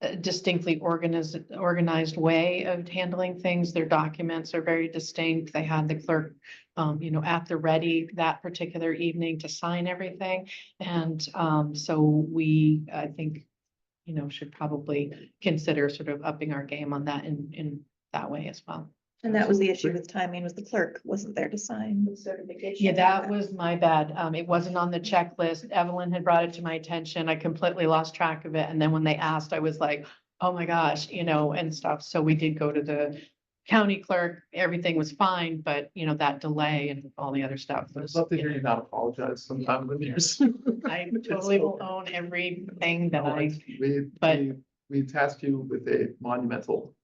a distinctly organized, organized way of handling things. Their documents are very distinct. They had the clerk, um, you know, at the ready that particular evening to sign everything. And, um, so we, I think, you know, should probably consider sort of upping our game on that in, in that way as well. And that was the issue with timing, was the clerk wasn't there to sign. the Certification. Yeah, that was my bad. Um, it wasn't on the checklist. Evelyn had brought it to my attention. I completely lost track of it. And then when they asked, I was like, oh my gosh, you know, and stuff. So we did go to the county clerk. Everything was fine, but you know, that delay and all the other stuff was. I'd love to hear you not apologize sometime when you're. I totally will own everything that I, We, but- we, we tasked you with a monumental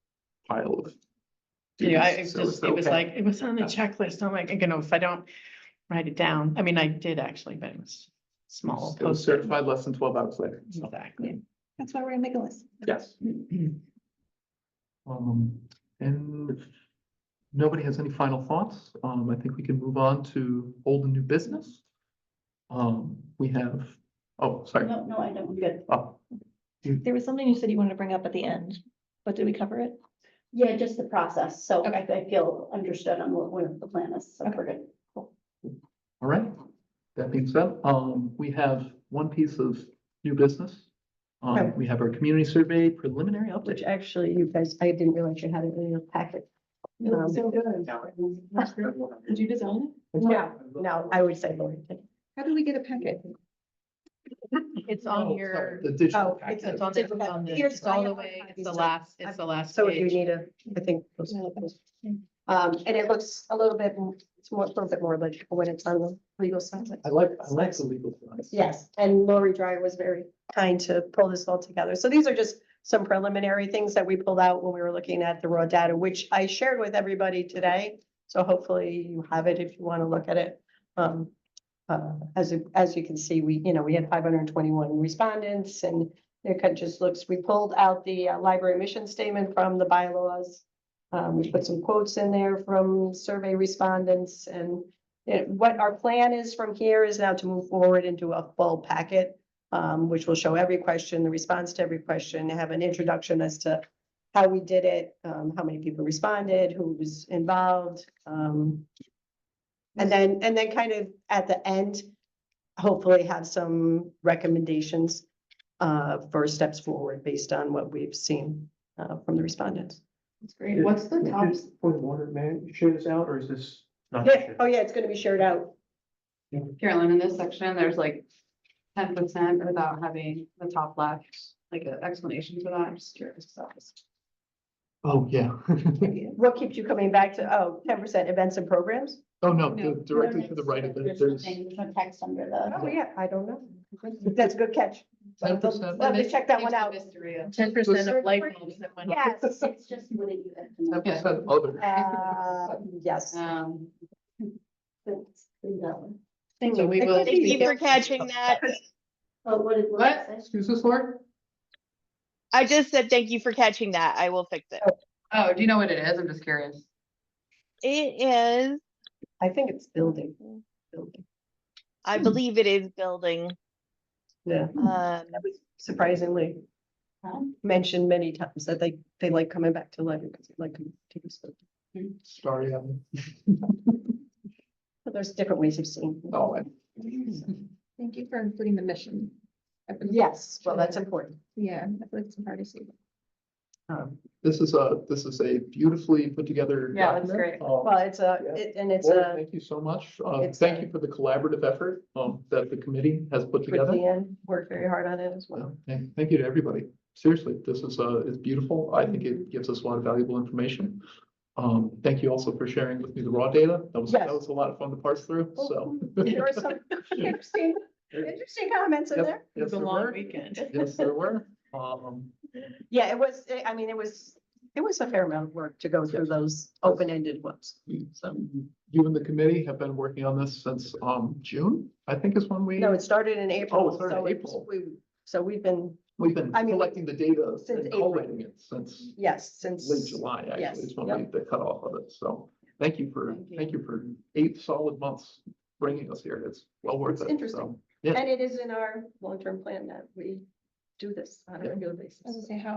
pile of. you know, I it was duties, so it's just, it was okay. like, it was on the checklist. I'm like, you know, if I don't write it down, I mean, I did actually, but it was small. It was post-it. certified less than twelve hours later. so, Exactly. That's why we're gonna make a list. Yes. Um, and if nobody has any final thoughts, um, I think we can move on to old and new business. Um, we have, oh, sorry. No, no, I don't, good. Oh, There was something you said you wanted to bring up at the end, but did we cover it? Yeah, just the process, so I, Okay. I feel understood on what, what the plan is, so we're good. All right, that being said, um, we have one piece of new business. Um, Okay. we have our community survey preliminary which update. actually you guys, I didn't realize you had it in your packet. Um, Did you design No, no, I would say Lori did. How did we get a packet? It's Oh, on sorry, your. The digital oh, It's packet. it's on the, it's on the, Here's- it's all I the have way, my it's the copy, so last, it's the last So if you page. need a, I think. those- Um, and it looks a little bit, m- it's more, a little bit more legible when it's on the legal side. I like, I like the legal. side. Yes, and Lori Dryer was very kind to pull this all together. So these are just some preliminary things that we pulled out when we were looking at the raw data, which I shared with everybody today. So hopefully you have it if you want to look at it. Um, uh, as, you- as you can see, we, you know, we had five hundred and twenty-one respondents and it kind of just looks, we pulled out the uh, library mission statement from the bylaws. Um, we put some quotes in there from survey respondents and it- what our plan is from here is now to move forward into a full packet, um, which will show every question, the response to every question, have an introduction as to how we did it, um, how many people responded, who was involved, um, and then, and then kind of at the end, hopefully have some recommendations uh, for steps forward based on what we've seen uh, from the respondents. That's great. What's the top? Point of order, man, shows out or is this? not Yeah, shared? oh yeah, it's gonna be shared out. Carolyn, in this section, there's like ten percent without having the top left, like an explanation for that. I'm just curious. if that was- Oh, yeah. What keeps you coming back to, oh, 10 percent events and programs? Oh, no, No. di- directly to the right of it, There's there's nothing, there's no text under the, Oh, yeah, I don't know. That's a good catch. ten percent. Let me check that one It's the out. Mystery of. Ten percent of light bulbs that went. off. Yes. it's just what it you have to know. Ten percent other. Uh, Yes. Um, It's uh, in that one. So we will. Thank you for catching that. Oh, what is, what? What? it says? Excuse us, Lord? I just said thank you for catching that. I will fix it. oh, do you know what it is? I'm just curious. It is, I think it's building. Building. I Hmm. believe it is building. Yeah. Um, That was surprisingly Huh? Um, mentioned many times that they, they like coming back to life because they like to do this. Sorry, Evan. But There's different ways of seeing. Oh, I- Thank you for including the mission. I've been- Yes, well, that's important. Yeah, I feel like it's hard to see. Um, This is a, this is a beautifully put together. Yeah, that's document. great. Um, Well, it's a, it- and it's Lord, a, Thank you so much. Uh, it's thank a- you for the collaborative effort, um, that the committee has put with together. Leanne worked very hard on it as well. Well, thank, thank you to everybody. Seriously, this is, uh, it's beautiful. I think it gives us a lot of valuable information. Um, thank you also for sharing with me the raw data. That was, that Yes. Oh, was a lot of fun to parse through, so. There were some interesting, interesting comments in Yep, there. It Yes, was a there long were. weekend. Yes, there were. Um, Yeah, it was, I- I mean, it was, it was a fair amount of work to go through those open-ended ones. So, you and the committee have been working on this since, um, June, I think is when we, no, it started in April. Oh, it started in so it's- April. we- So we've been, we've been I mean, collecting the data since and April. collating it since yes, late since, July, Yes, actually, is when we, the cutoff of it. So thank you for, Thank you. thank you for eight solid months bringing us here. It's well worth It's it. interesting. so. and it is in our long-term plan that we do this on a Yeah. regular I was basis. gonna say, how